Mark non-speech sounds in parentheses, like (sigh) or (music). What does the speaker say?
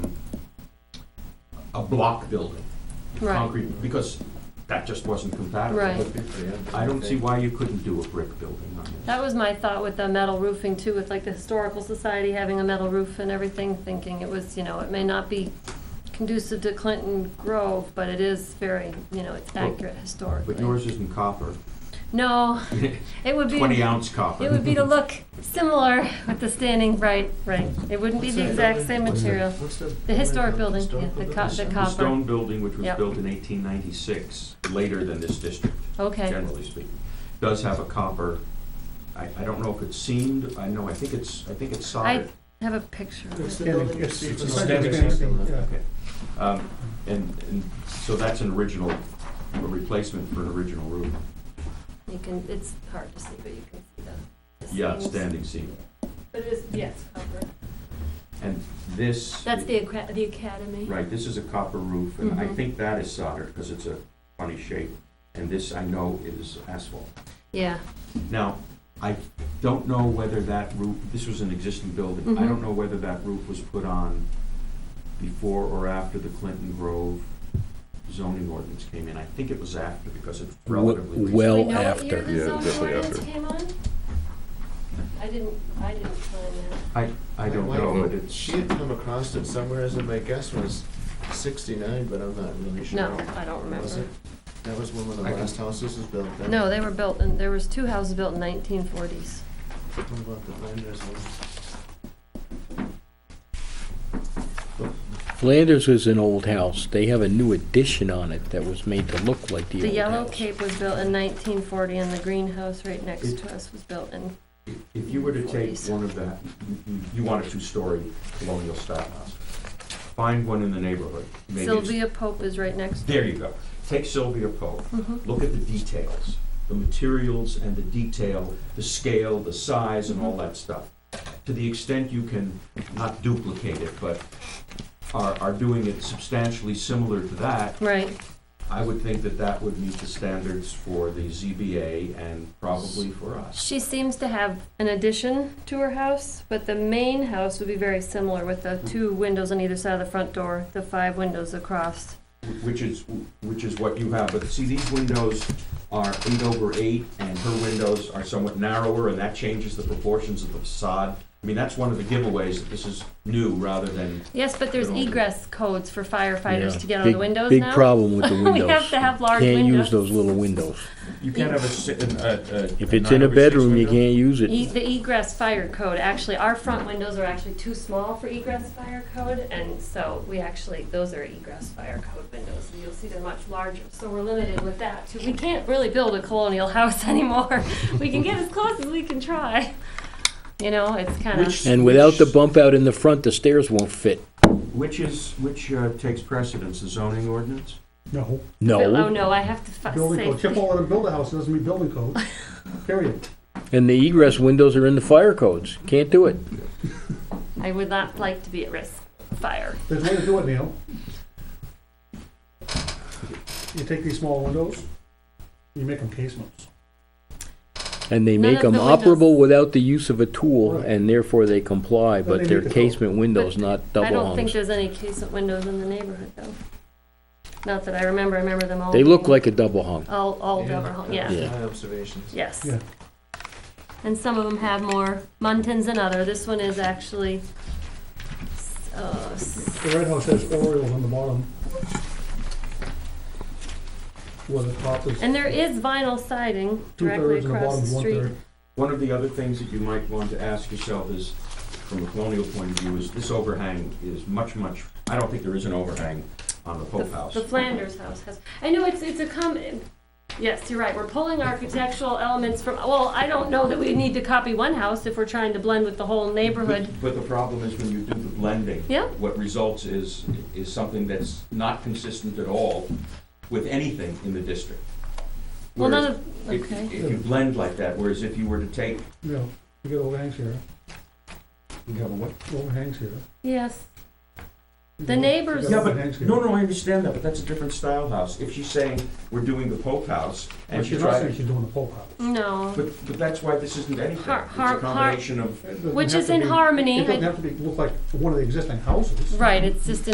a block building, Right, concrete, because that just wasn't compatible. Right. I don't see why you couldn't do a brick building on this. that was my thought with the metal roofing too, with like the historical society having a metal roof and everything, thinking it was, you know, it may not be conducive to Clinton Grove, but it is very, you know, it's accurate historically. But yours isn't copper, (laughs) No, it would be. twenty ounce copper. It would be to look similar with the standing, right, right. It wouldn't be the exact same material. The historic building, yeah, the co- the The copper. stone building, which was Yep. built in eighteen ninety-six, later than this district, Okay, generally speaking, does have a copper, I, I don't know if it's seamed, I know, I think it's, I think it's I soldered. have a picture. of it. It's a Okay. Um, And, and so that's an original, a replacement for an original roof. You can, it's hard to see, but you can see the- the. Yeah, seams. standing seam. But it is, yes, copper. And this. That's the, acra- the academy. Right, this is a copper roof, and I Mhm. think that is soldered, because it's a funny shape. And this, I know, is asphalt. Yeah, Now, I don't know whether that roof, this was an existing building. I Mhm. don't know whether that roof was put on before or after the Clinton Grove zoning ordinance came in. I think it was after, because it's relatively recent. Do we Well know what year after. the Yeah, zoning definitely ordinance after. came on? I didn't, I didn't find that. I, I don't know, but it's, She had come across it somewhere, as my guess was sixty-nine, but I'm not really sure. No, I don't Was remember. it? That was one of the I can- last houses was built then? No, they were built, and there was two houses built in nineteen forties. What about the Flanders one? Flanders was an old house. They have a new addition on it that was made to look like the old The house. Yellow Cape was built in nineteen forty, and the greenhouse right next It- to us was built in, if you were to take 40s. one of that, you want a two-story colonial style house, find one in the neighborhood. Maybe it's- Sylvia Pope is right next to There you go. Take Sylvia Pope. Mhm. Look at the details, the materials and the detail, the scale, the size, and all that stuff. To the extent you can not duplicate it, but are, are doing it substantially similar to that, Right, I would think that that would meet the standards for the ZBA and probably for us. she seems to have an addition to her house, but the main house would be very similar with Hmm. the two windows on either side of the front door, the five windows across. Which is, which is what you have, but see, these windows are eight over eight, and her windows are somewhat narrower, and that changes the proportions of the facade. I mean, that's one of the giveaways, that this is new rather than, Yes, but there's Good old- egress codes for firefighters Yeah. to get on Big- the windows Big now. problem (laughs) with the windows. We have to have large Can't windows. use those little windows. you can't have a si- a, a. If it's in a bedroom, you can't use E- it. The egress fire code, actually, our front windows are actually too small for egress fire code, and so we actually, those are egress fire code windows, and you'll see they're much larger, so we're limited with that, too. We can't really build a colonial (laughs) house anymore. We can get as close as we can try. You know, it's kind Which- of, And without the bump out in the front, the stairs won't fit. Which is, which uh, takes precedence, the zoning ordinance? oh No, No. no, I have to fi- building code, Chip say, won't let him build a house, it doesn't mean (laughs) building code, period. And the egress windows are in the fire codes. Can't do it. I would not like to be at risk of fire. There's a way to do it, Neil. You take these small windows, you make them casements. And they None make of them the windows- operable without the use of a tool, Right. and therefore they comply, they but they're make the code. casement windows, not I double don't think hungs. there's any casement windows in the neighborhood, though. Not that I remember, I remember them all. They look being- like a double hung. All, all double hung, that yeah. was Yeah. My observations. Yes. Yeah. And some of them have more muntins than other. This one is actually, uh, s- The red house has Orioles on the bottom. Where the top is and there is vinyl siding two directly thirds and the across bottom the is one street. third. One of the other things that you might want to ask yourself is, from a colonial point of view, is this overhang is much, much, I don't think there is an overhang on the Pope House. The Flanders house has, I know it's, it's a com, yes, you're right. We're pulling architectural elements from, well, I don't know that we need to copy one house if we're trying to blend with the whole neighborhood. But- But the problem is when you do the blending. Yeah. What results is, is something that's not consistent at all with anything in the district. Well, none Whereas of, if- okay. If you blend like that, whereas if you were to take, You know, you get overhangs here, you have a what? overhangs here. Yes, You The got- you neighbors- got Yeah, overhangs but, here. no, no, I understand that, but that's a different style house. If she's saying, we're doing the Pope House, and But she she's not tried, saying she's doing the pole house. no, but, but that's why this isn't anything. It's Har- a har- har- combination of It doesn't which have is to in be- harmony. It doesn't have to be, look like one of the existing houses. Right, it's just